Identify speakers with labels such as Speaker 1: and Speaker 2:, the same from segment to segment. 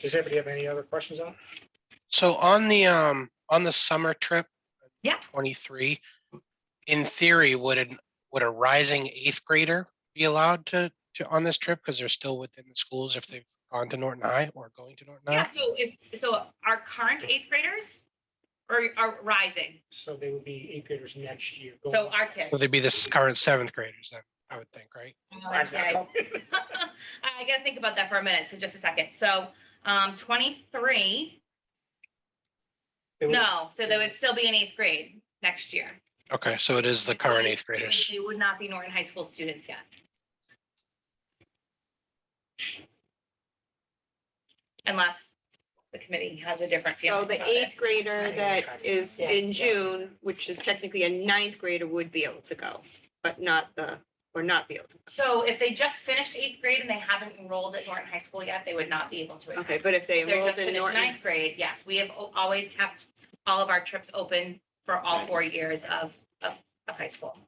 Speaker 1: Does anybody have any other questions on? it?
Speaker 2: So on the, um, on the summer trip.
Speaker 3: Yeah.
Speaker 2: Twenty-three, in theory, would an, would a rising eighth grader be allowed to, to, on this trip? Because they're still within the schools if they've gone to Norton High or going to Norton
Speaker 3: Yeah,
Speaker 2: High?
Speaker 3: so if, so our current eighth graders or are rising,
Speaker 1: So they would be eighth graders next year. going-
Speaker 3: so our kids.
Speaker 2: So they'd be the s- current seventh graders then, I would think, right?
Speaker 1: Mine's not
Speaker 3: Okay.
Speaker 1: coming.
Speaker 3: I gotta think about that for a minute, so just a second. So, um, twenty-three,
Speaker 1: They would-
Speaker 3: no, so they would still be in eighth grade next year.
Speaker 2: Okay, so it is the
Speaker 3: They
Speaker 2: current
Speaker 3: would-
Speaker 2: eighth
Speaker 3: they would-
Speaker 2: graders.
Speaker 3: They would not be Norton High School students yet. Unless the committee has a different
Speaker 4: So
Speaker 3: feeling
Speaker 4: the
Speaker 3: about it.
Speaker 4: eighth grader that is
Speaker 3: Yeah.
Speaker 4: in June, which is technically a ninth grader, would be able to go, but not the, or not be able to.
Speaker 3: So if they just finished eighth grade and they haven't enrolled at Norton High School yet, they would not be able to attend.
Speaker 4: Okay, but if they
Speaker 3: If They're
Speaker 4: enrolled
Speaker 3: just
Speaker 4: in
Speaker 3: finished
Speaker 4: Norton,
Speaker 3: ninth grade, yes, we have al- always kept all of our trips open for all four years of, of, of high school.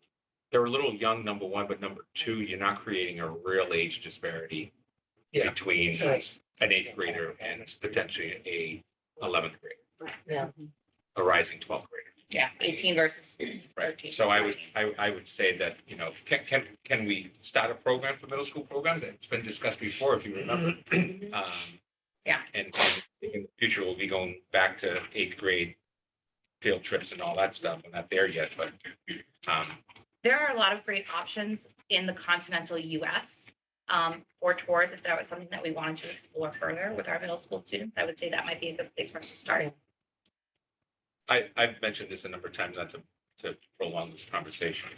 Speaker 5: they're a little young, number one, but number two, you're not creating a real age disparity
Speaker 1: Yeah.
Speaker 5: between an
Speaker 1: That's-
Speaker 5: eighth grader and potentially a eleventh grader,
Speaker 1: Yeah,
Speaker 5: a rising twelfth grader.
Speaker 3: Yeah, eighteen versus
Speaker 5: Right,
Speaker 3: thirteen.
Speaker 5: so I would, I, I would say that, you know, can, can, can we start a program for middle school programs? It's been discussed before, if you remember.
Speaker 1: Mm-hmm.
Speaker 5: Um,
Speaker 3: Yeah.
Speaker 5: And and in the future, we'll be going back to eighth grade field trips and all that stuff. We're not there yet, but, um,
Speaker 3: There are a lot of great options in the continental US um, for tours. If that was something that we wanted to explore further with our middle school students, I would say that might be a good place for us to start.
Speaker 5: I, I've mentioned this a number of times, not to, to prolong this conversation.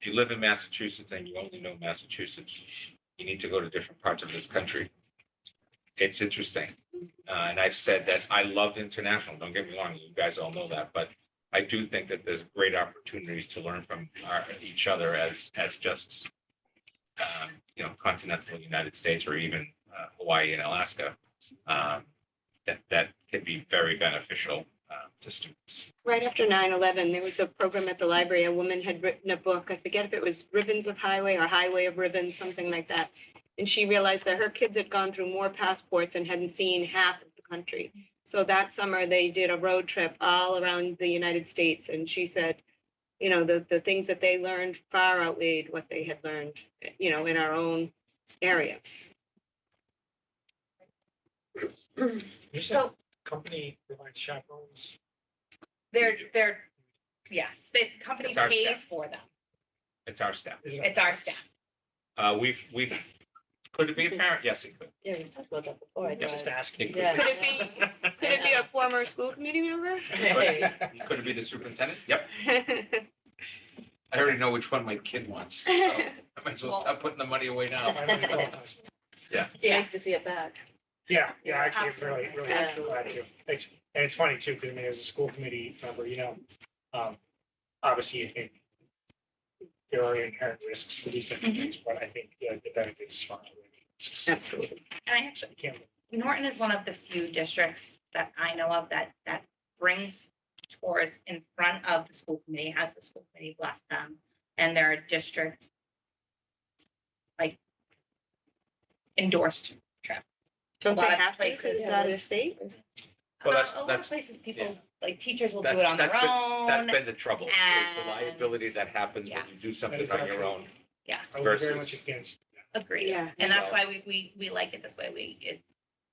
Speaker 5: If you live in Massachusetts and you only know Massachusetts, you need to go to different parts of this country. It's interesting. Uh, and I've said that I love international, don't get me wrong, you guys all know that, but I do think that there's great opportunities to learn from our, each other as, as just, um, you know, continental United States or even uh, Hawaii and Alaska. Um, that that can be very beneficial um, to students.
Speaker 4: right after 9/11, there was a program at the library. A woman had written a book. I forget if it was Ribbons of Highway or Highway of Ribbons, something like that. And she realized that her kids had gone through more passports and hadn't seen half of the country. So that summer, they did a road trip all around the United States. And she said, you know, the, the things that they learned far outweighed what they had learned, you know, in our own area.
Speaker 1: Just
Speaker 3: So
Speaker 1: that company provides chaperones.
Speaker 3: they're, they're, yes, the company
Speaker 5: It's our staff.
Speaker 3: pays for them.
Speaker 5: It's our staff.
Speaker 1: Is it-
Speaker 3: It's our staff.
Speaker 5: Uh, We've, we've, could it be a parent? Yes, it could.
Speaker 6: Yeah, we talked about that before. I
Speaker 1: Just
Speaker 6: thought.
Speaker 1: asking.
Speaker 6: Yeah.
Speaker 4: Could it be, could it be a former school committee member?
Speaker 6: Hey,
Speaker 5: Could it be the superintendent? Yep. I already know which one my kid wants. so I might as well stop putting the money away now.
Speaker 6: It's nice to see it back.
Speaker 1: Yeah, yeah, actually, it's really,
Speaker 3: Absolutely.
Speaker 1: really, actually glad to. It's, and it's funny too, because I mean, as a school committee member, you know, um, obviously, I think there are inherent risks to these different things,
Speaker 3: Mm-hmm.
Speaker 1: but I think the the benefits far outweigh.
Speaker 4: Absolutely.
Speaker 3: And I actually,
Speaker 1: I can't
Speaker 3: Norton is one of the few districts that I know of that, that brings tours in front of the school committee, has the school committee bless them, and their district like endorsed.
Speaker 4: Don't they
Speaker 3: lot of
Speaker 4: have to, 'cause
Speaker 3: places.
Speaker 4: it's out of state?
Speaker 5: Well,
Speaker 3: Uh,
Speaker 5: that's-
Speaker 3: A lot of
Speaker 5: that's-
Speaker 3: places,
Speaker 5: yeah.
Speaker 3: people, like teachers will do
Speaker 5: That-
Speaker 3: it on their
Speaker 5: that's been- That's
Speaker 3: own.
Speaker 5: been the trouble, is the liability that happens when you do something on your own.
Speaker 3: Yeah,
Speaker 1: I would be very much
Speaker 5: Versus-
Speaker 1: against
Speaker 3: agreed.
Speaker 4: Yeah.
Speaker 3: And that's why we, we, we like it this way. We, it's,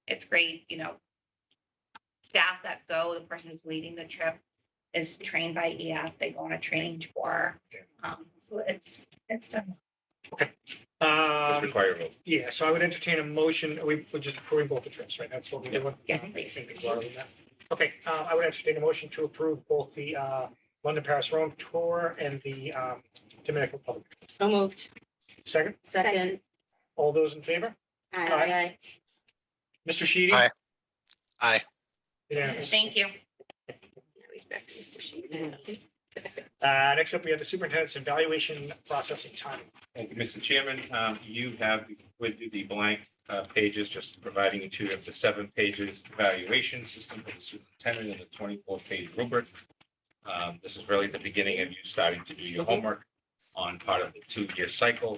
Speaker 3: it's great, you know. Staff that go, the person who's leading the trip is trained by EF, they go on a training tour. Um, so it's, it's done.
Speaker 5: It's
Speaker 1: Um,
Speaker 5: required. vote.
Speaker 1: yeah, so I would entertain a motion, we, we're just approving both the trips, right? That's what we're doing.
Speaker 3: Yes,
Speaker 1: Um,
Speaker 3: please.
Speaker 1: I think it's already done. Okay, uh, I would entertain a motion to approve both the, uh, London, Paris, Rome tour and the, um, Dominican Republic.
Speaker 4: So moved.
Speaker 1: Second,
Speaker 6: Second.
Speaker 1: all those in favor? Aye.
Speaker 6: Aye.
Speaker 1: Mr. Sheedy?
Speaker 2: Aye. Aye.
Speaker 1: Unanimous.
Speaker 3: Thank you.
Speaker 4: Respect Mr. Sheehan.
Speaker 1: Uh, next up, we have the superintendent's evaluation processing time.
Speaker 5: Thank you, Mr. Chairman. Um, You have with you the blank uh, pages, just providing you two of the seven pages evaluation system for the superintendent and the twenty-four page rubric. Um, This is really the beginning of you starting to do your homework on part of the two-year cycle.